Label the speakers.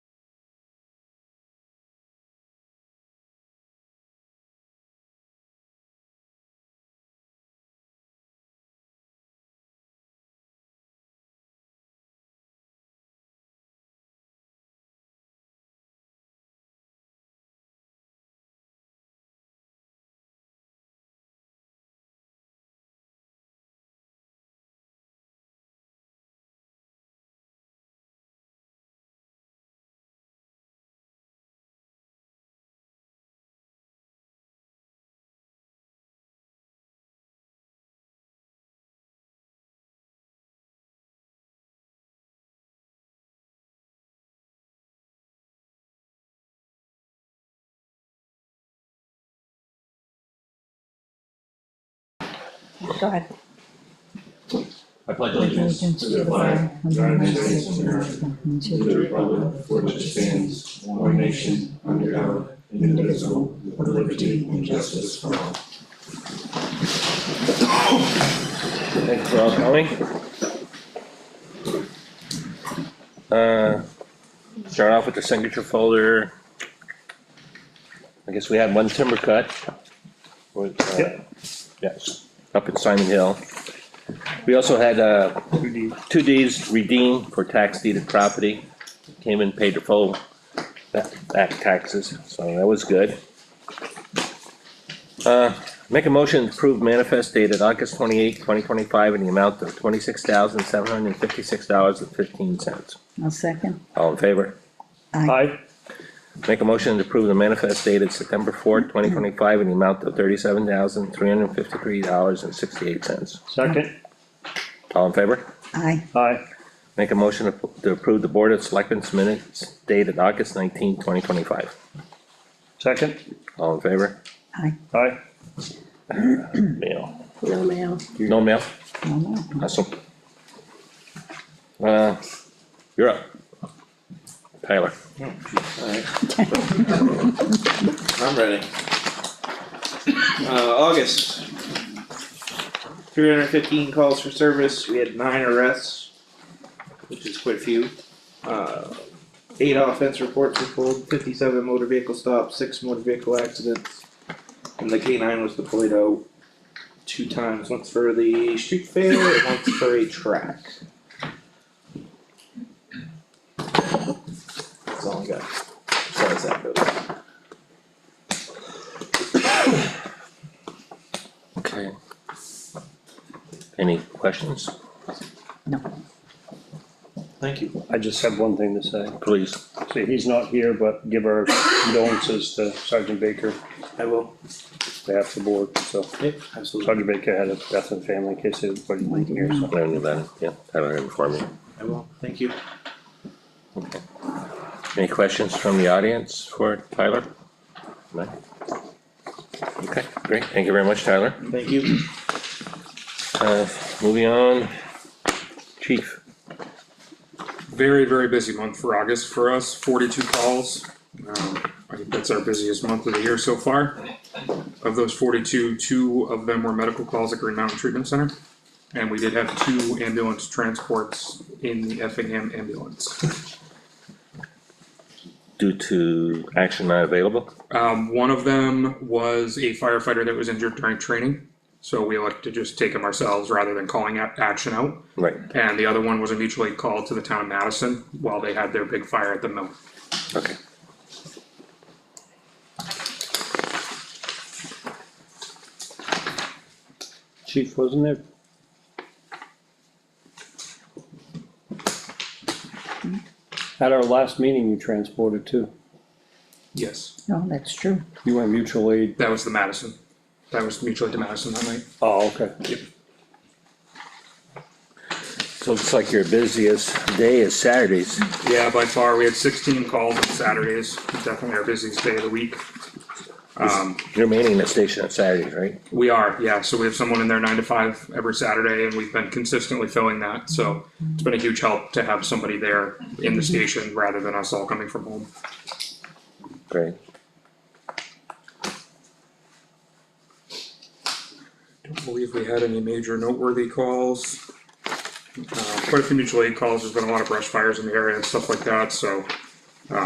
Speaker 1: Go ahead.
Speaker 2: I pledge
Speaker 3: allegiance to the flag of the United States of America and to the republic for which it stands, one nation, under God, indivisible, with liberty and justice for all.
Speaker 4: Thanks for all coming. Uh, Start off with the signature folder. I guess we had one timber cut. Was, uh, Yes, up in Simon Hill. We also had uh, two deeds redeemed for tax deeded property. Came and paid their full back back taxes, so that was good. Uh, Make a motion to approve manifest dated August twenty-eighth, twenty twenty-five in the amount of twenty-six thousand, seven hundred and fifty-six dollars and fifteen cents.
Speaker 3: I'll second.
Speaker 4: All in favor?
Speaker 2: Aye.
Speaker 4: Make a motion to approve the manifest dated September fourth, twenty twenty-five in the amount of thirty-seven thousand, three hundred and fifty-three dollars and sixty-eight cents.
Speaker 2: Second,
Speaker 4: All in favor?
Speaker 3: Aye,
Speaker 2: aye,
Speaker 4: Make a motion to approve the Board of Selectmen's minutes dated August nineteenth, twenty twenty-five.
Speaker 2: second,
Speaker 4: All in favor?
Speaker 3: aye,
Speaker 2: aye,
Speaker 4: Mail.
Speaker 1: No mail.
Speaker 4: No mail?
Speaker 3: no, no,
Speaker 4: Awesome. Uh, you're up. Tyler.
Speaker 5: Alright. I'm ready. Uh, August. Three hundred fifteen calls for service, we had nine arrests, which is quite a few. Uh, eight offense reports were pulled, fifty-seven motor vehicle stops, six motor vehicle accidents. And the K nine was deployed out two times, once for the street fair, and once for a track. That's all I got, as far as that goes.
Speaker 4: Okay. Any questions?
Speaker 3: no,
Speaker 5: Thank you.
Speaker 2: I just have one thing to say.
Speaker 4: Please.
Speaker 2: See, he's not here, but give our condolences to Sergeant Baker,
Speaker 5: I will.
Speaker 2: behalf of the board, so.
Speaker 5: Yep, absolutely.
Speaker 2: Sergeant Baker had a death in the family, in case anybody didn't hear,
Speaker 3: Mm-hmm.
Speaker 4: I
Speaker 2: so.
Speaker 4: don't know about it. Yeah, Tyler informed me.
Speaker 5: I will. Thank you.
Speaker 4: Okay. Any questions from the audience for Tyler? No? Okay, great. Thank you very much, Tyler.
Speaker 5: Thank you.
Speaker 4: Uh, moving on. Chief.
Speaker 6: very, very busy month for August for us, forty-two calls. Um, I think that's our busiest month of the year so far. Of those forty-two, two of them were medical calls at Green Mountain Treatment Center. And we did have two ambulance transports in the Effingham ambulance.
Speaker 4: Due to action not available?
Speaker 6: Um, one of them was a firefighter that was injured during training. So we elected to just take him ourselves rather than calling out action out.
Speaker 4: Right,
Speaker 6: And the other one was a mutual aid call to the town of Madison while they had their big fire at the mill.
Speaker 4: okay.
Speaker 2: Chief, wasn't there? At our last meeting, you transported too.
Speaker 6: Yes.
Speaker 3: no, that's true.
Speaker 2: You went mutual aid.
Speaker 6: That was the Madison. That was mutual aid to Madison that night.
Speaker 2: Oh, okay.
Speaker 4: So it's like your busiest day is Saturdays.
Speaker 6: Yeah, by far, we had sixteen calls on Saturdays, definitely our busiest day of the week. Um,
Speaker 4: You're manning the station on Saturdays, right?
Speaker 6: we are, yeah, so we have someone in there nine to five every Saturday and we've been consistently filling that, so it's been a huge help to have somebody there in the station rather than us all coming from home.
Speaker 4: Great.
Speaker 6: Don't believe we had any major noteworthy calls. Uh, quite a few mutual aid calls, there's been a lot of brush fires in the area and stuff like that, so